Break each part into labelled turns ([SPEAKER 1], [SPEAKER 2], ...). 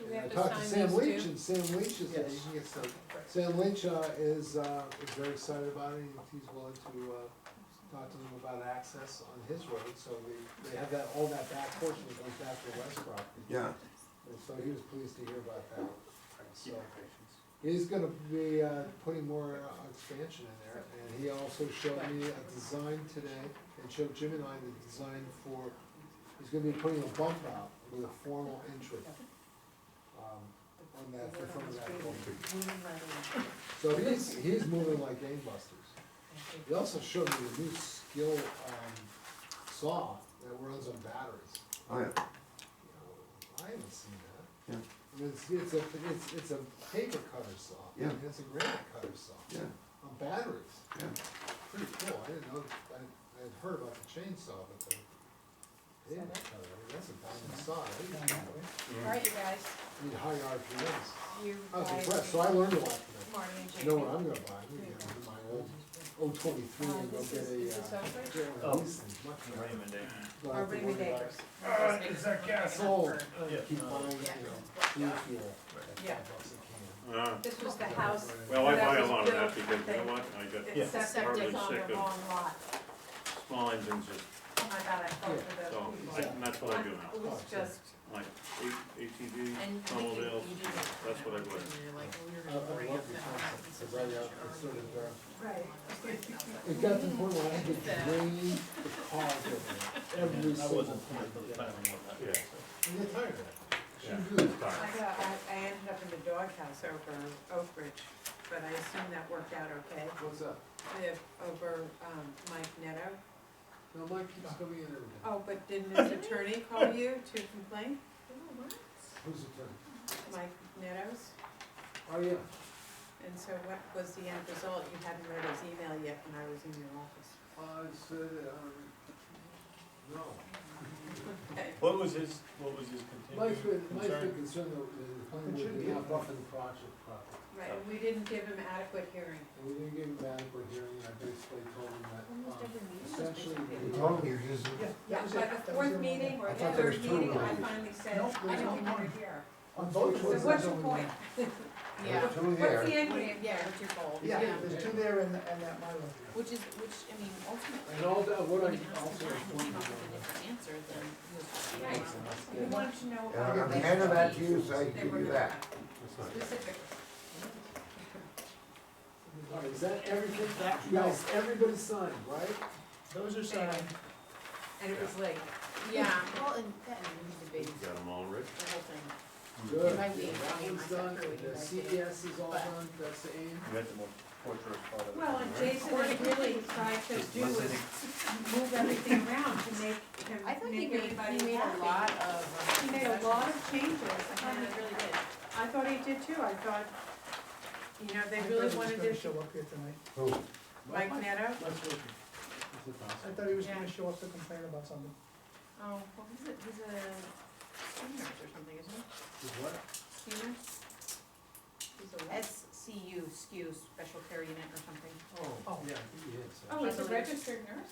[SPEAKER 1] have
[SPEAKER 2] I
[SPEAKER 1] to
[SPEAKER 2] talked to
[SPEAKER 1] sign
[SPEAKER 2] Sam
[SPEAKER 1] these
[SPEAKER 2] Leach,
[SPEAKER 1] too?
[SPEAKER 2] and Sam Leach is,
[SPEAKER 3] Yes.
[SPEAKER 2] you can get some, Sam Leach, uh, is, uh, is very excited about it, and he's willing to, uh, talk to them about access on his road, so they, they have that, all that back portion that goes back to West Property.
[SPEAKER 4] Yeah,
[SPEAKER 2] And so he was pleased to hear about that, so. He's gonna be, uh, putting more uh, expansion in there, and he also showed me a design today, and showed Jim and I the design for, he's gonna be putting a bump out with a formal entry. Um, on that, in front of that building.
[SPEAKER 1] Moving right along.
[SPEAKER 2] So he's, he's moving like gangbusters. He also showed me the new skill, um, saw that runs on batteries.
[SPEAKER 4] oh yeah,
[SPEAKER 2] I haven't seen that.
[SPEAKER 4] Yeah.
[SPEAKER 2] I mean, It's, it's a, it's, it's a paper cutter saw.
[SPEAKER 4] Yeah.
[SPEAKER 2] And It's a granite cutter saw.
[SPEAKER 4] yeah,
[SPEAKER 2] On batteries,
[SPEAKER 4] yeah.
[SPEAKER 2] pretty cool, I didn't know, I, I had heard about the chainsaw, but the pavement cutter, I mean, that's a diamond saw, I didn't know that.
[SPEAKER 1] All right, you guys,
[SPEAKER 2] Need high RPMs.
[SPEAKER 1] you
[SPEAKER 2] I was
[SPEAKER 1] guys.
[SPEAKER 2] impressed, so I learned a lot today.
[SPEAKER 1] Marty and
[SPEAKER 2] You know what
[SPEAKER 1] Jamie.
[SPEAKER 2] I'm gonna buy, I'm gonna get my old O twenty-three
[SPEAKER 1] Uh,
[SPEAKER 2] and go
[SPEAKER 1] this
[SPEAKER 2] get
[SPEAKER 1] is, is
[SPEAKER 2] a,
[SPEAKER 1] this
[SPEAKER 2] uh,
[SPEAKER 1] Oxford?
[SPEAKER 2] get
[SPEAKER 5] Oh.
[SPEAKER 2] one of these things, much better.
[SPEAKER 6] Raymond Day.
[SPEAKER 2] Don't
[SPEAKER 1] Or
[SPEAKER 2] have to
[SPEAKER 1] Raymond
[SPEAKER 2] worry about
[SPEAKER 1] Acres?
[SPEAKER 2] it.
[SPEAKER 1] Is
[SPEAKER 6] that gas?
[SPEAKER 2] Sold,
[SPEAKER 6] Yeah.
[SPEAKER 2] keep buying,
[SPEAKER 1] Yeah.
[SPEAKER 2] you know, blue fuel at
[SPEAKER 1] Yeah.
[SPEAKER 2] five bucks a can.
[SPEAKER 5] Uh,
[SPEAKER 1] This was the house,
[SPEAKER 5] Well, I
[SPEAKER 1] That
[SPEAKER 5] buy a
[SPEAKER 1] was
[SPEAKER 5] lot of that
[SPEAKER 1] built,
[SPEAKER 5] because you know
[SPEAKER 1] they-
[SPEAKER 5] what, I got
[SPEAKER 1] it's septic
[SPEAKER 5] Probably
[SPEAKER 1] on
[SPEAKER 5] sick
[SPEAKER 1] the
[SPEAKER 5] of-
[SPEAKER 1] wrong lot.
[SPEAKER 5] small engines, just-
[SPEAKER 1] Oh my god, I felt
[SPEAKER 5] so
[SPEAKER 1] for
[SPEAKER 5] I-
[SPEAKER 1] those people.
[SPEAKER 5] and that's what I do now.
[SPEAKER 2] Oh,
[SPEAKER 1] It was just,
[SPEAKER 5] Like A-
[SPEAKER 1] and
[SPEAKER 5] ATV,
[SPEAKER 1] you you
[SPEAKER 5] snowmobiles,
[SPEAKER 1] didn't.
[SPEAKER 5] that's what I would.
[SPEAKER 3] You're like, well, you're
[SPEAKER 2] I, I
[SPEAKER 3] gonna bring
[SPEAKER 2] love
[SPEAKER 3] up
[SPEAKER 2] the
[SPEAKER 3] that
[SPEAKER 2] concept,
[SPEAKER 3] house.
[SPEAKER 2] it's right out, it's sort of, uh,
[SPEAKER 1] Right.
[SPEAKER 2] It got to the point where I had to drain the car over every
[SPEAKER 6] I
[SPEAKER 2] single
[SPEAKER 6] wasn't,
[SPEAKER 2] point.
[SPEAKER 6] but I don't know that.
[SPEAKER 5] Yeah.
[SPEAKER 2] And you're tired of it.
[SPEAKER 5] Yeah.
[SPEAKER 2] You really-
[SPEAKER 1] I got, I, I ended up in the doghouse over Oak Ridge, but I assume that worked out okay.
[SPEAKER 2] What's up?
[SPEAKER 1] If, over, um, Mike Neto.
[SPEAKER 2] No, Mike keeps coming in every day.
[SPEAKER 1] Oh, but didn't his attorney call you to complain?
[SPEAKER 2] Who's the turn?
[SPEAKER 1] Mike Neto's?
[SPEAKER 2] Oh, yeah.
[SPEAKER 1] And so what was the end result? You hadn't read his email yet when I was in your office.
[SPEAKER 2] I said, um, no.
[SPEAKER 1] Okay.
[SPEAKER 6] What was his, what was his
[SPEAKER 2] Mike's been,
[SPEAKER 6] continued
[SPEAKER 2] Mike's been
[SPEAKER 6] concern?
[SPEAKER 2] concerned that the planning
[SPEAKER 3] It should
[SPEAKER 2] board did
[SPEAKER 3] be
[SPEAKER 2] not
[SPEAKER 3] up.
[SPEAKER 2] buffer the project properly.
[SPEAKER 1] Right, and we didn't give him adequate hearing.
[SPEAKER 2] And we didn't give him adequate hearing, and I basically told him that, um, essentially.
[SPEAKER 1] basically-
[SPEAKER 3] Yeah,
[SPEAKER 1] Yeah,
[SPEAKER 3] that was it.
[SPEAKER 1] by the
[SPEAKER 3] That was
[SPEAKER 1] fourth
[SPEAKER 3] it.
[SPEAKER 1] meeting or
[SPEAKER 2] I
[SPEAKER 1] the
[SPEAKER 2] thought there was
[SPEAKER 1] third
[SPEAKER 2] two
[SPEAKER 1] meeting, I
[SPEAKER 2] already.
[SPEAKER 1] finally said,
[SPEAKER 3] Nope,
[SPEAKER 1] I
[SPEAKER 3] there's
[SPEAKER 1] don't
[SPEAKER 3] only
[SPEAKER 1] want
[SPEAKER 3] one.
[SPEAKER 1] to hear.
[SPEAKER 2] On both
[SPEAKER 1] So
[SPEAKER 2] shores,
[SPEAKER 1] what's
[SPEAKER 2] there's
[SPEAKER 1] your
[SPEAKER 2] only
[SPEAKER 1] point?
[SPEAKER 2] one.
[SPEAKER 3] Yeah,
[SPEAKER 4] Two
[SPEAKER 1] What's
[SPEAKER 4] there,
[SPEAKER 1] the end game?
[SPEAKER 3] yeah, what's your goal?
[SPEAKER 2] Yeah.
[SPEAKER 3] There's two there and, and that Mylar.
[SPEAKER 7] Which is, which, I mean, ultimately,
[SPEAKER 2] And all that, what I
[SPEAKER 7] when you have
[SPEAKER 2] also.
[SPEAKER 7] the time, we
[SPEAKER 2] informed
[SPEAKER 7] come
[SPEAKER 2] him
[SPEAKER 7] up
[SPEAKER 2] on that.
[SPEAKER 7] with a different answer than was.
[SPEAKER 1] Right. We wanted to know. how
[SPEAKER 4] Yeah, I'm
[SPEAKER 1] they-
[SPEAKER 4] handing that to you, so I
[SPEAKER 1] they
[SPEAKER 4] give
[SPEAKER 1] were
[SPEAKER 4] you
[SPEAKER 1] gonna-
[SPEAKER 4] that.
[SPEAKER 1] Specific.
[SPEAKER 2] All right, is that everything, you guys, everybody signed, right?
[SPEAKER 6] Those are signed.
[SPEAKER 1] And it was late.
[SPEAKER 7] Yeah, well, and that, and we debated
[SPEAKER 5] Got them all rich.
[SPEAKER 7] the whole thing.
[SPEAKER 2] Good.
[SPEAKER 7] If I leave,
[SPEAKER 2] That
[SPEAKER 7] I'll
[SPEAKER 2] one's
[SPEAKER 7] get my
[SPEAKER 2] done,
[SPEAKER 7] separate
[SPEAKER 2] the
[SPEAKER 7] right
[SPEAKER 2] CES is all
[SPEAKER 7] But-
[SPEAKER 2] done, that's the aim.
[SPEAKER 6] You had the more torturous part of it.
[SPEAKER 1] Well, and Jason had really tried to do was move everything around to make him,
[SPEAKER 7] I thought he
[SPEAKER 1] make
[SPEAKER 7] made, he
[SPEAKER 1] everybody
[SPEAKER 7] made
[SPEAKER 1] happy.
[SPEAKER 7] a lot of. uh,
[SPEAKER 1] He made a lot of changes
[SPEAKER 7] I thought
[SPEAKER 1] and
[SPEAKER 7] he really did.
[SPEAKER 1] I thought he did too. I thought, you know, they
[SPEAKER 3] I thought he
[SPEAKER 1] really
[SPEAKER 3] was
[SPEAKER 1] wanted
[SPEAKER 3] gonna
[SPEAKER 1] to,
[SPEAKER 3] Show up here tonight.
[SPEAKER 1] Mike Neto.
[SPEAKER 6] Let's look.
[SPEAKER 3] I thought he was
[SPEAKER 7] Yeah.
[SPEAKER 3] gonna show up to complain about something.
[SPEAKER 7] Oh, well, he's a, he's a senior or something, isn't he?
[SPEAKER 2] Is what?
[SPEAKER 7] Senior? SCU, SCU, special care unit or something.
[SPEAKER 2] Oh, yeah, I think it is.
[SPEAKER 1] Oh, he's a registered nurse?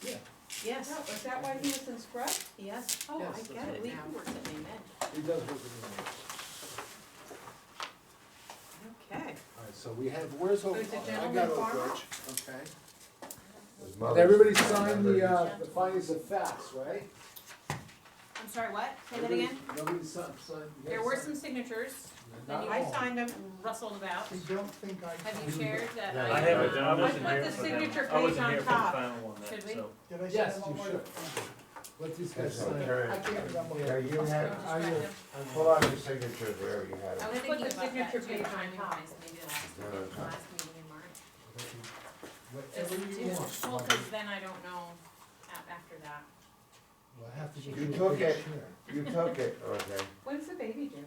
[SPEAKER 7] Yes,
[SPEAKER 1] No, is that why he was in scrub?
[SPEAKER 7] yes.
[SPEAKER 1] Oh,
[SPEAKER 2] Yes,
[SPEAKER 1] I
[SPEAKER 2] that's
[SPEAKER 1] get
[SPEAKER 7] I
[SPEAKER 1] it
[SPEAKER 7] believe he
[SPEAKER 1] now.
[SPEAKER 7] works at Maine Med.
[SPEAKER 2] He does work in the office.
[SPEAKER 1] Okay.
[SPEAKER 2] All right, so we have, where's Oak?
[SPEAKER 1] There's a
[SPEAKER 2] I got
[SPEAKER 1] gentleman
[SPEAKER 2] Oak
[SPEAKER 1] farmer.
[SPEAKER 2] Ridge, Okay.
[SPEAKER 4] His
[SPEAKER 2] Did
[SPEAKER 4] mother's-
[SPEAKER 2] everybody sign the, uh, the
[SPEAKER 7] Gentleman.
[SPEAKER 2] findings of facts, right?
[SPEAKER 7] I'm sorry, what? Say that again?
[SPEAKER 2] Nobody signed, signed. you guys
[SPEAKER 7] There were some
[SPEAKER 2] signed?
[SPEAKER 7] signatures,
[SPEAKER 2] Not
[SPEAKER 7] and you-
[SPEAKER 2] all.
[SPEAKER 7] I signed them, rustled about.
[SPEAKER 3] I don't think I.
[SPEAKER 7] Have you shared that I?
[SPEAKER 6] I haven't,
[SPEAKER 7] uh,
[SPEAKER 6] I wasn't
[SPEAKER 1] put
[SPEAKER 6] here
[SPEAKER 1] the
[SPEAKER 6] for that.
[SPEAKER 1] signature
[SPEAKER 6] I wasn't
[SPEAKER 1] page on
[SPEAKER 6] here for the
[SPEAKER 1] top.
[SPEAKER 6] final one,
[SPEAKER 7] Should
[SPEAKER 6] that,
[SPEAKER 7] we?
[SPEAKER 6] so.
[SPEAKER 3] Did I
[SPEAKER 2] Yes,
[SPEAKER 3] send one
[SPEAKER 2] you
[SPEAKER 3] more?
[SPEAKER 2] should. Let these guys
[SPEAKER 4] That's
[SPEAKER 2] sign.
[SPEAKER 3] I
[SPEAKER 4] okay.
[SPEAKER 3] can't remember.
[SPEAKER 4] Yeah, you had,
[SPEAKER 7] Just
[SPEAKER 2] I
[SPEAKER 7] grab
[SPEAKER 2] will-
[SPEAKER 7] them.
[SPEAKER 4] pull out your signatures wherever you
[SPEAKER 1] Put
[SPEAKER 4] had them.
[SPEAKER 7] I was
[SPEAKER 1] the
[SPEAKER 7] thinking about that
[SPEAKER 1] signature
[SPEAKER 7] too,
[SPEAKER 1] page on
[SPEAKER 7] timing
[SPEAKER 1] top.
[SPEAKER 7] wise, maybe
[SPEAKER 4] No,
[SPEAKER 7] the
[SPEAKER 4] no,
[SPEAKER 7] last,
[SPEAKER 4] no.
[SPEAKER 7] last meeting in March.
[SPEAKER 2] Whatever you
[SPEAKER 7] Just do- Well,
[SPEAKER 2] want.
[SPEAKER 7] cause then I don't know a- after that.
[SPEAKER 2] We'll have to get
[SPEAKER 4] You
[SPEAKER 2] you a
[SPEAKER 4] took
[SPEAKER 2] big
[SPEAKER 4] it.
[SPEAKER 2] chair.
[SPEAKER 4] You took it, okay.
[SPEAKER 1] When's the baby due?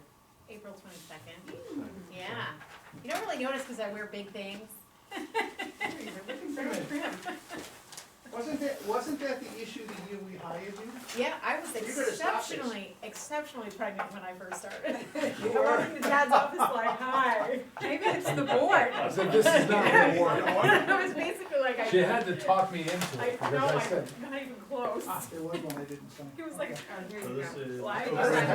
[SPEAKER 7] April twenty-second, yeah. You don't really notice because I wear big things.
[SPEAKER 1] You're looking very trim.
[SPEAKER 3] Wasn't that, wasn't that the issue the year we hired you?
[SPEAKER 7] Yeah, I was
[SPEAKER 3] You're gonna stop this.
[SPEAKER 7] exceptionally, exceptionally pregnant when I first started. I walked into dad's office like, hi.
[SPEAKER 1] Maybe it's the board.
[SPEAKER 2] I said, this is not gonna work.
[SPEAKER 7] I was basically like, I,
[SPEAKER 2] She had to talk me into it,
[SPEAKER 7] I,
[SPEAKER 2] because
[SPEAKER 7] no,
[SPEAKER 2] I
[SPEAKER 7] I'm
[SPEAKER 2] said,
[SPEAKER 7] not even close.
[SPEAKER 3] There was one I didn't sign.
[SPEAKER 1] Oh,
[SPEAKER 7] He was like,
[SPEAKER 6] So this is.
[SPEAKER 7] Why?
[SPEAKER 6] Okay.